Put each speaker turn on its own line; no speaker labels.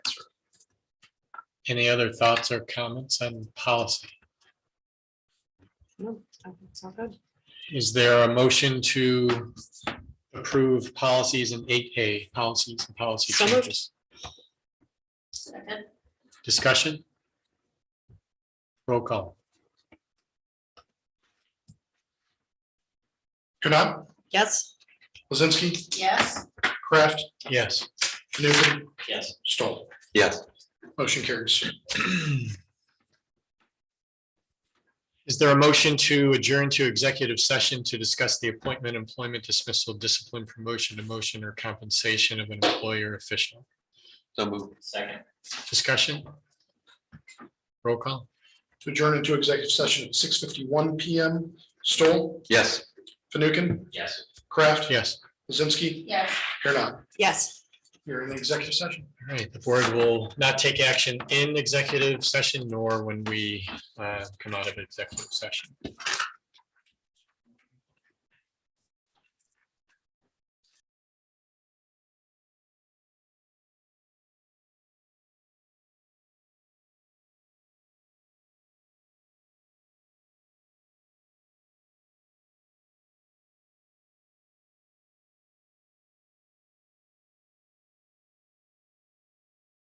Any other thoughts or comments on policy?
No, I think it's all good.
Is there a motion to approve policies in eight A, policies and policy
So moved.
changes? Discussion? Roll call.
Knapp,
Yes,
Lizinsky,
Yes.
Kraft,
Yes.
Fanukin,
Yes.
Stoll.
Yes.
Motion carries.
Is there a motion to adjourn to executive session to discuss the appointment, employment dismissal, discipline, promotion, demotion, or compensation of an employer official?
So moved.
Second.
Discussion? Roll call.
To adjourn into executive session at six fifty-one PM. Stoll,
Yes.
Fanukin,
Yes.
Kraft,
Yes.
Lizinsky,
Yes.
Knapp.
yes.
You're in the executive session.
All right, the board will not take action in executive session nor when we uh, come out of executive session.